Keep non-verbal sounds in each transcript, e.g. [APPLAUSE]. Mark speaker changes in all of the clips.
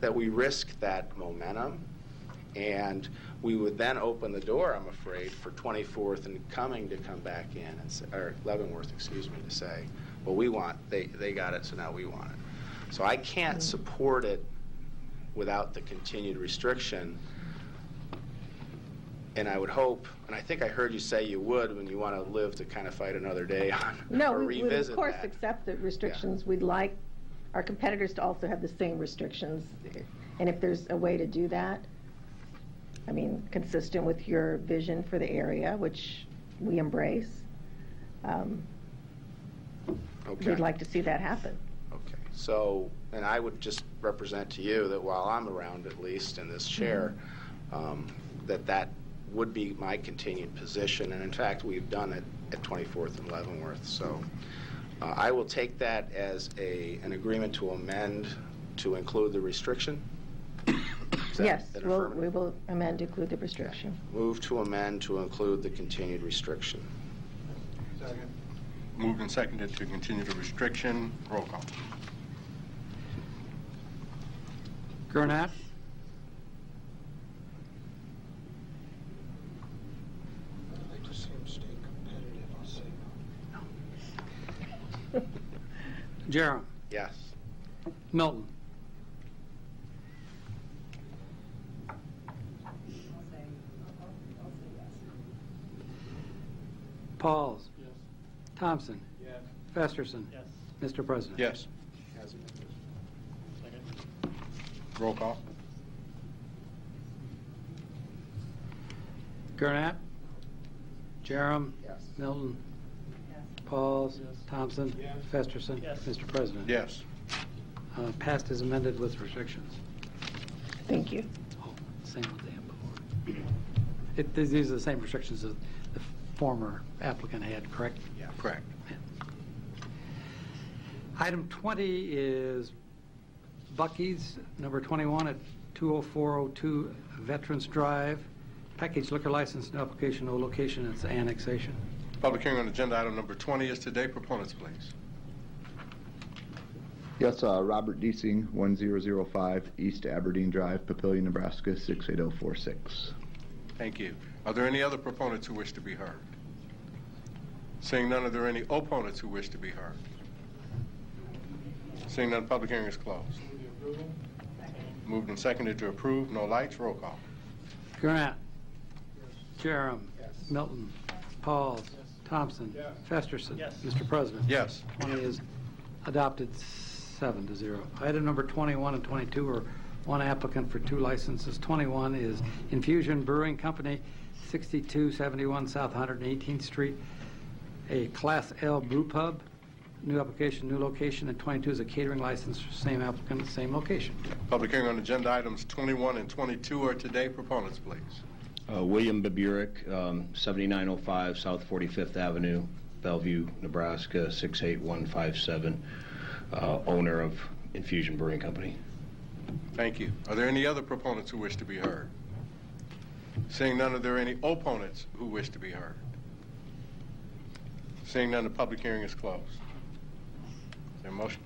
Speaker 1: that we risk that momentum. And we would then open the door, I'm afraid, for 24th and Cumming to come back in, and say, or Leavenworth, excuse me, to say, well, we want, they, they got it, so now we want it. So I
Speaker 2: Mm-hmm.
Speaker 1: can't support it without the continued restriction. And I would hope, and I think I heard you say you would when you want to live to kind of fight another day [LAUGHS] on,
Speaker 2: No,
Speaker 1: or
Speaker 2: we would of
Speaker 1: revisit
Speaker 2: course
Speaker 1: that.
Speaker 2: accept the restrictions. We'd like our competitors to also have the same restrictions. And if there's a way to do that, I mean, consistent with your vision for the area, which we embrace, um,
Speaker 1: Okay.
Speaker 2: we'd like to see that happen.
Speaker 1: Okay, so, and I would just represent to you that while I'm around, at least in this chair,
Speaker 2: Mm-hmm.
Speaker 1: um, that that would be my continued position, and in fact, we've done it at 24th and Leavenworth, so uh, I will take that as a, an agreement to amend to include the restriction. Is that
Speaker 2: Yes,
Speaker 1: an
Speaker 2: we'll-
Speaker 1: affirmative?
Speaker 2: we will amend to include the restriction.
Speaker 1: Move to amend to include the continued restriction.
Speaker 3: Moved and seconded to continue the restriction. Roll call.
Speaker 4: Gurnat?
Speaker 5: I just seem to stay competitive, I'll say no.
Speaker 4: Jerem?
Speaker 1: Yes.
Speaker 4: Milton? Pauls?
Speaker 6: Yes.
Speaker 4: Thompson?
Speaker 6: Yes.
Speaker 4: Festerson?
Speaker 6: Yes.
Speaker 4: Mr. President?
Speaker 3: Yes.
Speaker 6: Second.
Speaker 3: Roll call.
Speaker 4: Gurnat? Jerem?
Speaker 1: Yes.
Speaker 4: Milton? Pauls?
Speaker 6: Yes.
Speaker 4: Thompson?
Speaker 6: Yes.
Speaker 4: Festerson?
Speaker 6: Yes.
Speaker 4: Mr. President?
Speaker 3: Yes.
Speaker 4: Uh, Passed as amended with restrictions.
Speaker 2: [LAUGHS] Thank you.
Speaker 4: Oh, Same as they had before. It- These these are the same restrictions that the former applicant had, correct?
Speaker 3: Correct.
Speaker 4: Item 20 is Bucky's, number 21 at 20402 Veterans Drive. Package liquor license and application, no location, it's annexation.
Speaker 3: Public hearing on agenda item number 20 is today. Proponents, please.
Speaker 7: Yes, uh, Robert Deasing, 1005 East Aberdeen Drive, Papillion, Nebraska, 68046.
Speaker 3: Thank you. Are there any other proponents who wish to be heard? Seeing none, are there any opponents who wish to be heard? Seeing none, public hearing is closed. Moved and seconded to approve. No lights. Roll call.
Speaker 4: Gurnett. Jerem. Milton. Pauls. Thompson. Festerson.
Speaker 6: Yes.
Speaker 4: Mr. President.
Speaker 3: Yes.
Speaker 4: 20 is adopted seven to zero. Item number 21 and 22 are one applicant for two licenses. 21 is Infusion Brewing Company, 6271 South 118th Street, a Class L brew pub. New application, new location, and 22 is a catering license for same applicant, same location.
Speaker 3: Public hearing on agenda items 21 and 22 are today. Proponents, please.
Speaker 8: Uh, William Baburek, um, 7905 South 45th Avenue, Bellevue, Nebraska, 68157, uh, owner of Infusion Brewing Company.
Speaker 3: Thank you. Are there any other proponents who wish to be heard? Seeing none, are there any opponents who wish to be heard? Seeing none, the public hearing is closed. Is there a motion?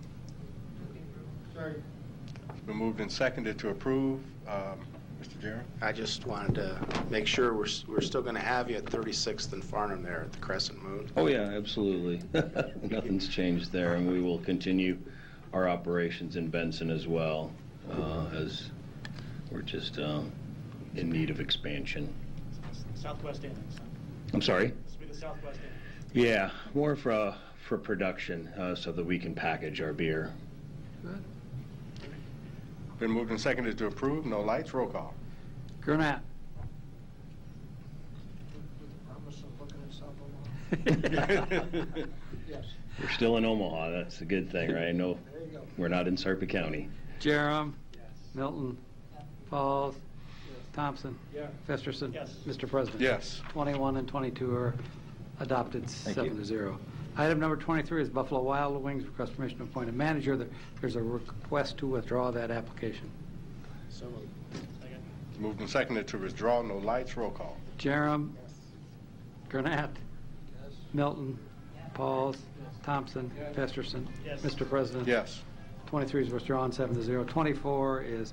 Speaker 3: It's been moved and seconded to approve. Um, Mr. Jerem?
Speaker 1: I just wanted to make sure we're, s- we're still going to have you at 36th and Farnham there at the Crescent Moon.
Speaker 8: Oh, yeah, absolutely. [LAUGHS] Nothing's changed there, and we will continue our operations in Benson as well, uh, as we're just um, in need of expansion.
Speaker 6: Southwest Annex. huh?
Speaker 8: I'm sorry?
Speaker 6: This will be the Southwest Annex.
Speaker 8: Yeah, more for, uh, for production, uh, so that we can package our [LAUGHS] beer.
Speaker 3: Been moved and seconded to approve. No lights. Roll call.
Speaker 4: Gurnett.
Speaker 5: With the promise of looking at South Omaha. Yes,
Speaker 8: We're still in Omaha, that's the good thing, right? No,
Speaker 5: there you go.
Speaker 8: we're not in Sarpy County.
Speaker 4: [LAUGHS] Jerem. Milton. Pauls. Thompson.
Speaker 6: Yes.
Speaker 4: Festerson.
Speaker 6: Yes.
Speaker 4: Mr. President.
Speaker 3: Yes.
Speaker 4: 21 and 22 are adopted, seven to zero. Item number 23 is Buffalo Wild Wings, request permission to appoint a manager. There- There's a request to withdraw that application.
Speaker 6: Second.
Speaker 3: It's Moved and seconded to withdraw. No lights. Roll call.
Speaker 4: Jerem. Gurnett.
Speaker 5: Yes.
Speaker 4: Milton. Pauls. Thompson. Festerson.
Speaker 6: Yes.
Speaker 4: Mr. President.
Speaker 3: Yes.
Speaker 4: 23 is withdrawn, seven to zero. 24 is